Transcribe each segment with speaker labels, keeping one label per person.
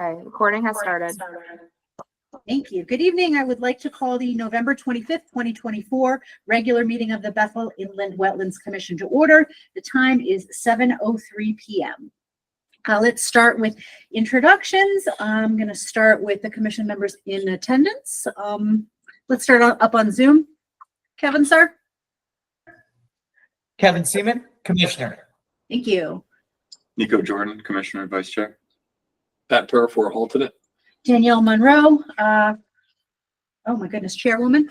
Speaker 1: Okay, recording has started.
Speaker 2: Thank you. Good evening. I would like to call the November 25th, 2024 regular meeting of the Bethel Inland Wetlands Commission to order. The time is 7:03 PM. Uh, Let's start with introductions. I'm going to start with the commission members in attendance. Um, Let's start on- up on Zoom. Kevin, sir?
Speaker 3: Kevin Seaman, Commissioner.
Speaker 2: Thank you.
Speaker 4: Nico Jordan, Commissioner, Vice Chair. Pat Parafour, alternate.
Speaker 2: Danielle Monroe, uh, oh my goodness, Chairwoman.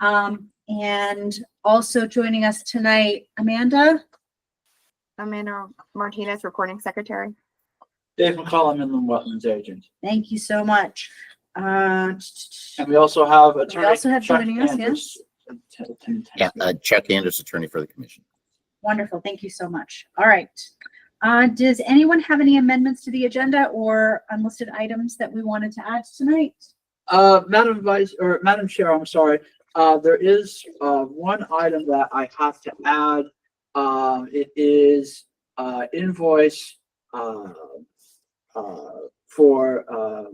Speaker 2: Um, And also joining us tonight, Amanda.
Speaker 1: Amanda Martinez, recording secretary.
Speaker 5: Dave McCollum, Inland Wetlands Agent.
Speaker 2: Thank you so much. Uh,
Speaker 5: And we also have attorney.
Speaker 2: also have
Speaker 5: Chuck
Speaker 2: joining us,
Speaker 5: Andrews. Attend- attend-
Speaker 6: Yeah, uh, Chuck Anders, attorney for the commission.
Speaker 2: wonderful. Thank you so much. All right. Uh, does anyone have any amendments to the agenda or unlisted items that we wanted to add tonight?
Speaker 5: Uh, Madam Vice, or Madam Chair, I'm sorry, uh, there is, uh, one item that I have to add. Um, it is, uh, invoice, uh, uh, for, uh,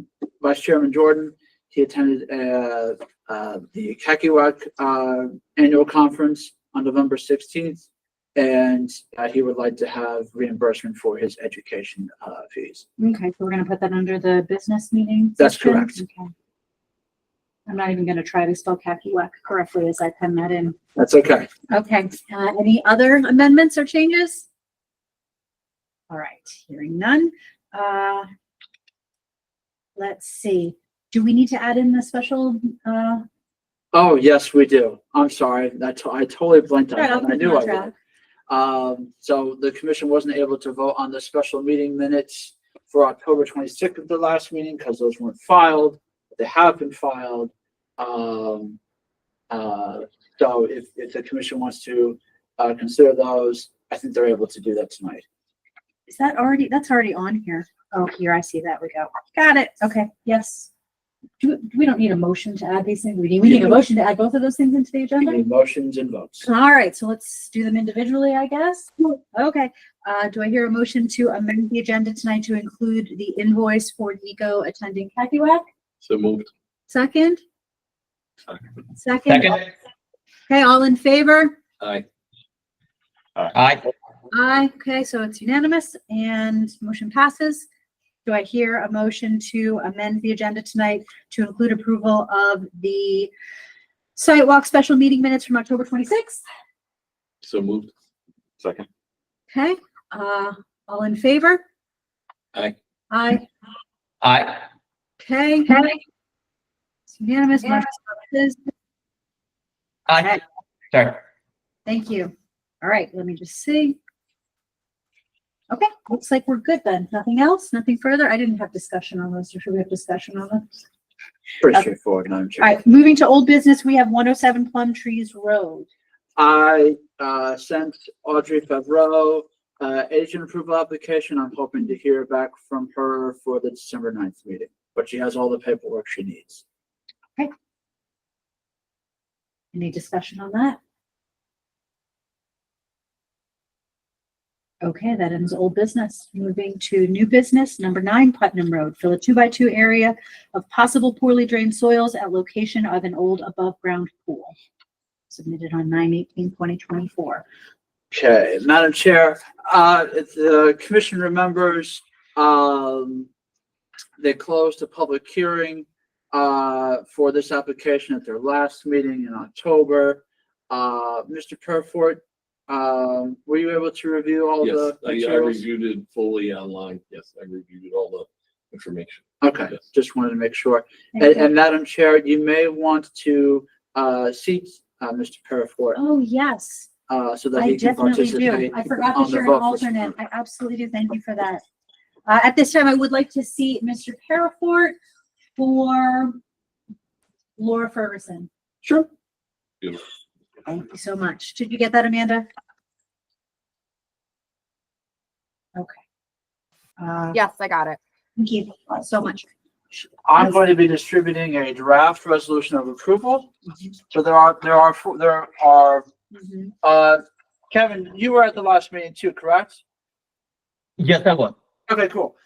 Speaker 5: Vice Chairman Jordan. He attended, uh, uh, the Kekiwak, uh, Annual Conference on November sixteenth. And, uh, he would like to have reimbursement for his education, uh, fees.
Speaker 2: Okay, so we're gonna put that under the business meeting.
Speaker 5: That's
Speaker 2: section?
Speaker 5: correct.
Speaker 2: Okay. I'm not even gonna try to spell Kakiwak correctly as I pen that in.
Speaker 5: That's okay.
Speaker 2: Okay, uh, any other amendments or changes? All right, hearing none. Uh, Let's see, do we need to add in the special, uh?
Speaker 5: Oh, yes, we do. I'm sorry. That's, I totally blanked on
Speaker 2: Right, I'll
Speaker 5: that. I
Speaker 2: put
Speaker 5: knew I
Speaker 2: contract.
Speaker 5: did. Um, so the commission wasn't able to vote on the special meeting minutes for October twenty-sixth of the last meeting because those weren't filed. They have been filed. Um, uh, so if, if the commission wants to, uh, consider those, I think they're able to do that tonight.
Speaker 2: Is that already, that's already on here? Oh, here, I see that, we go. Got it, okay, yes. Do, we don't need a motion to add these things, we need, we need a
Speaker 5: Yeah.
Speaker 2: motion to add both of those things into the
Speaker 5: We
Speaker 2: agenda?
Speaker 5: need motions and votes.
Speaker 2: All right, so let's do them individually, I guess. Okay, uh, do I hear a motion to amend the agenda tonight to include the invoice for Nico attending Cacuac?
Speaker 4: So moved.
Speaker 2: Second? Second,
Speaker 3: Second.
Speaker 2: okay, all in favor?
Speaker 4: Aye.
Speaker 3: Aye.
Speaker 2: Aye, okay, so it's unanimous and motion passes. Do I hear a motion to amend the agenda tonight to include approval of the sidewalk special meeting minutes from October twenty-sixth?
Speaker 4: So moved. Second.
Speaker 2: Okay, uh, all in favor?
Speaker 4: Aye.
Speaker 2: Aye.
Speaker 3: Aye.
Speaker 2: Okay. It's Unanimous. motion passes.
Speaker 3: Aye. Sorry.
Speaker 2: Thank you. All right, let me just see. Okay, looks like we're good then. Nothing else, nothing further. I didn't have discussion on those. or Should we have discussion on them?
Speaker 5: Pretty
Speaker 2: Okay.
Speaker 5: straightforward, Madam Chair.
Speaker 2: All right, moving to old business, we have one oh seven Plum Trees Road.
Speaker 5: I uh, sent Audrey Favreau uh, agent approval application. I'm hoping to hear back from her for the December 9th meeting, but she has all the paperwork she needs.
Speaker 2: Any discussion on that? Okay, that ends old business. Moving to new business, number nine Putnam Road, fill a two-by-two area of possible poorly drained soils at location of an old above-ground pool. Submitted on 9-18-2024.
Speaker 5: Okay, Madam Chair, uh, if the commission remembers, um, they closed the public hearing, uh, for this application at their last meeting in October. Uh, Mr. Perfort, um, were you able to review all
Speaker 7: Yes,
Speaker 5: the
Speaker 7: I- I
Speaker 5: materials?
Speaker 7: reviewed it fully online. Yes, I reviewed all the information.
Speaker 5: Okay,
Speaker 7: Yes.
Speaker 5: just wanted to make sure.
Speaker 2: Thank
Speaker 5: And,
Speaker 2: you.
Speaker 5: and Madam Chair, you may want to, uh, seat, uh, Mr. Parafort,
Speaker 2: Oh, yes,
Speaker 5: uh, so
Speaker 2: Oh,
Speaker 5: that
Speaker 2: I
Speaker 5: he can
Speaker 2: definitely do.
Speaker 5: participate.
Speaker 2: I forgot
Speaker 5: on
Speaker 2: that
Speaker 5: the
Speaker 2: you're an
Speaker 5: vote for-
Speaker 2: alternate. I absolutely do. Thank you for that. Uh, at this time, I would like to see Mr. Parafort or Laura Ferguson.
Speaker 5: Sure.
Speaker 2: Thank you so much. Did you get that, Amanda? Okay. Uh,
Speaker 1: Yes, I got it.
Speaker 2: thank you so much.
Speaker 5: I'm going to be distributing a draft resolution of approval. So there are, there are, four- there are,
Speaker 2: Mhm.
Speaker 5: uh, Kevin, you were at the last meeting too, correct?
Speaker 3: Yes, I will.
Speaker 5: Okay, cool.